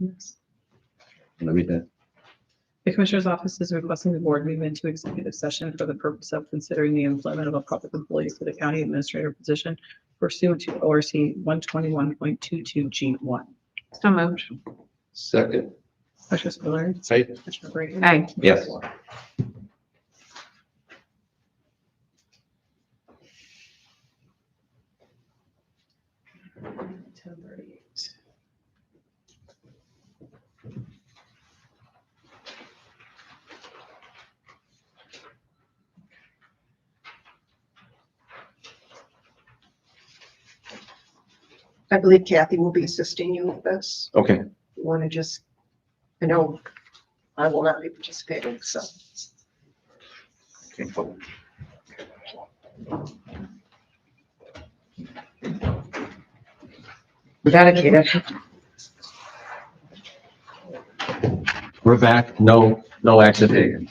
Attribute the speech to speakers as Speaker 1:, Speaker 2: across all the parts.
Speaker 1: Yes.
Speaker 2: Let me read that.
Speaker 1: The Commissioner's Office is requesting the board move into executive session for the purpose of considering the employment of a public employee for the county administrator position pursuant to ORC one twenty-one point two-two G one.
Speaker 3: So moved.
Speaker 2: Second.
Speaker 1: Commissioner Spillier.
Speaker 2: Aye.
Speaker 1: Commissioner Brady.
Speaker 3: Aye.
Speaker 2: Yes.
Speaker 1: Ten thirty-eight.
Speaker 4: I believe Kathy will be assisting you with this.
Speaker 2: Okay,
Speaker 4: You want to just, I know I will not be participating, so.
Speaker 3: Dedicated.
Speaker 2: we're back. No, no action taken.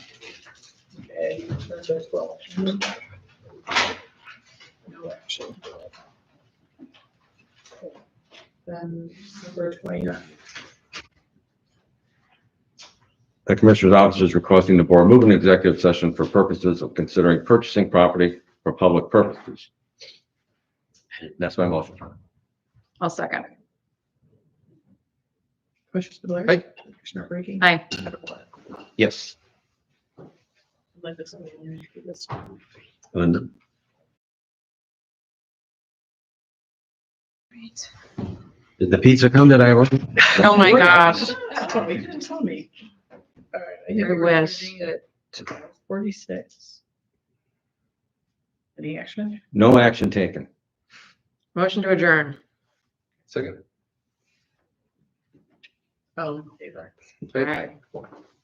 Speaker 3: Oh
Speaker 1: No action. Then number twenty-nine.
Speaker 2: The Commissioner's Office is requesting the board move into executive session for purposes of considering purchasing property for public purposes. That's my motion.
Speaker 3: I'll second.
Speaker 1: Commissioner Spillier.
Speaker 2: Aye.
Speaker 1: Commissioner Brady.
Speaker 3: Aye.
Speaker 2: Yes.
Speaker 1: Like this one, you do this one.
Speaker 2: Linda? Did the pizza come that I ordered?
Speaker 3: Oh my gosh.
Speaker 1: That's what you didn't tell me. All right, I have
Speaker 3: Your
Speaker 1: a
Speaker 3: wish.
Speaker 1: reading at Forty-six. Any action?
Speaker 2: No action taken.
Speaker 3: Motion to adjourn.
Speaker 2: Second.
Speaker 1: Oh, David.
Speaker 3: All right.